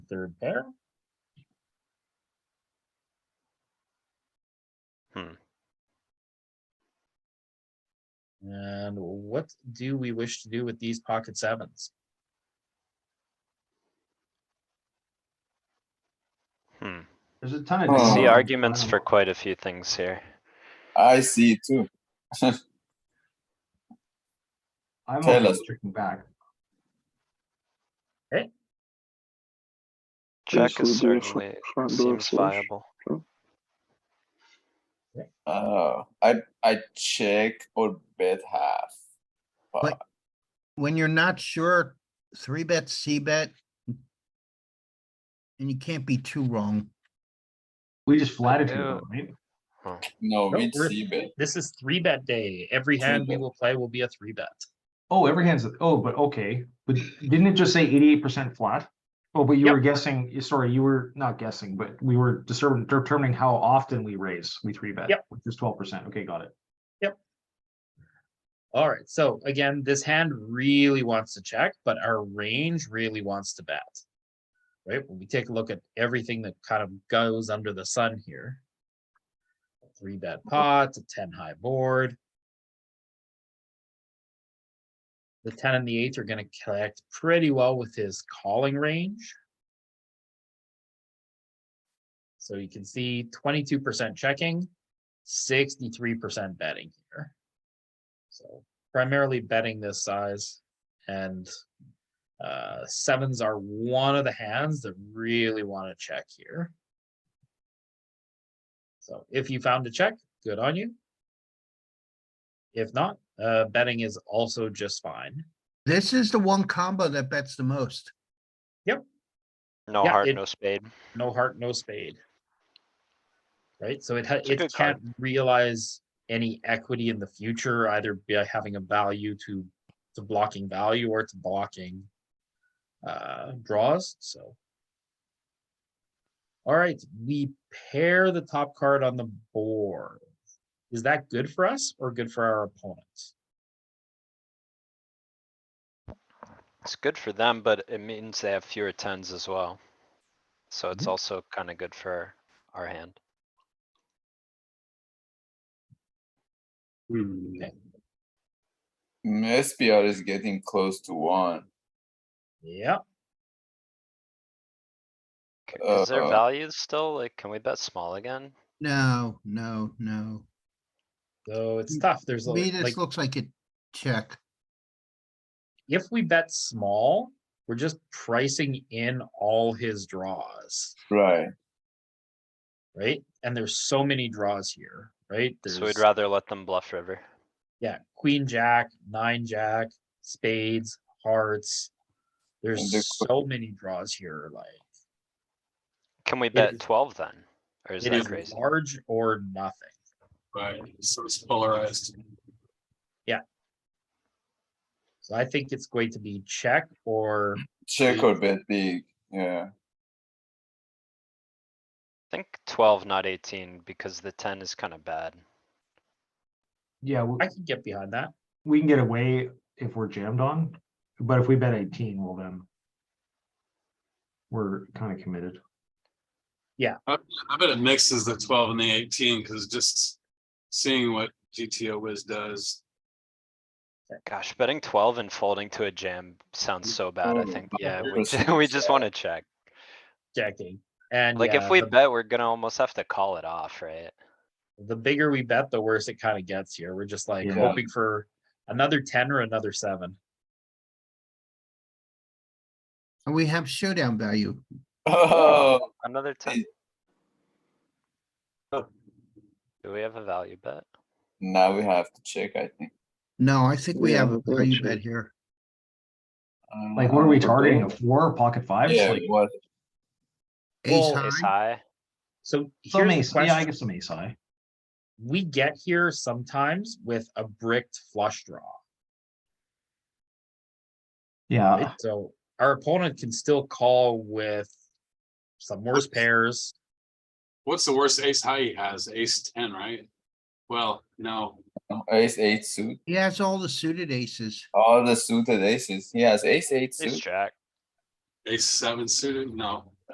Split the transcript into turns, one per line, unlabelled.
third pair.
Hmm.
And what do we wish to do with these pocket sevens?
Hmm.
There's a ton of.
I
I see
Oh.
arguments
um,
for quite a few things here.
I see it too.
I'm
tell
always
us.
checking back.
Check
Yes,
is
we do fr-
certainly
front door
seems
flush.
viable.
Oh, I I check or bet half.
But-
Fuck.
when you're not sure, three bet, C bet. And you can't be too wrong.
We just flatted people,
do.
right?
no,
No,
we
we're-
see bet.
This is three bet day. Every
Three
hand we
bet.
will play will be a three bet.
Oh, every hand's, oh, but okay, but didn't it just say eighty-eight percent flat? Oh, but you
Yep.
were guessing, you- sorry, you were not guessing, but we were discer- determining how often we raise, we three bet.
Yep.
Which is twelve percent. Okay, got it.
Alright, so again, this hand really wants to check, but our range really wants to bet. Right, when we take a look at everything that kind of goes under the sun here. Three bet pot, a ten high board. The ten and the eight are gonna connect pretty well with his calling range. So you can see twenty-two percent checking, sixty-three percent betting here. So primarily betting this size and uh, sevens are one of the hands that really want to check here. So if you found a check, good on you. If not, uh, betting is also just fine.
This is the one combo that bets the most.
No
Yeah,
heart,
it-
no spade.
No heart, no spade. Right? So it ha-
It's a
it
good card.
can't realize any equity in the future, either by having a value to to blocking value or to blocking uh draws, so. Alright, we pair the top card on the board. Is that good for us or good for our opponents?
It's good for them, but it means they have fewer tens as well. So it's
Mhm.
also kinda good for our hand.
Okay,
Mm, SPR is getting close to one.
Yeah,
K, Is there
Uh,
value still? Like, can we bet small again?
No, no, no.
so it's tough. There's a
To me,
like.
this looks like a check.
if we bet small, we're just pricing in all his draws,
Right.
right? And there's so many draws here, right?
So we'd
There's-
rather let them bluff river.
Yeah, queen, jack, nine, jack, spades, hearts. There's
the qu-
so many draws here, like
Can we
is-
bet twelve then? Or is
it
that
is
crazy?
large or nothing.
Right, so it's polarized.
So I think it's going to be check or
Check or bet big. Yeah.
I think twelve, not eighteen, because the ten is kinda bad.
Yeah, we,
I can get behind that.
we can get away if we're jammed on, but if we bet eighteen, well then. We're kind of committed.
I bet it mixes the twelve and the eighteen, cause just seeing what GTO whiz does.
Gosh, betting twelve and folding to a jam sounds so bad, I
Oh,
think. Yeah, we,
100%
ju- we just wanna check.
Checking. And
Like,
yeah,
if we
the-
bet, we're gonna almost have to call it off, right?
the bigger we bet, the worse it kind of gets here. We're just like
Yeah.
hoping for another ten or another seven.
And we have showdown value.
Oh,
Another ten.
Oh.
Do we have a value bet?
now we have to check. I think.
No, I think we
Yeah,
have a
we're
value
cheap.
bet here.
Um,
Like, what are we
but
targeting? A
then-
four, pocket fives?
Yeah,
Like,
what?
Ace
Well,
Ace
high,
high?
So
some
here's
ace,
the
yeah, I
question.
guess some ace high.
we get here sometimes with a bricked flush draw. right?
Yeah,
So our opponent can still call with some worse pairs.
What's the worst ace high he has? Ace ten, right? Well, no,
um, Ace eight suit.
he has all the suited aces.
All the suited aces. He has ace eight
Ace
suit.
jack.
ace seven suited, no.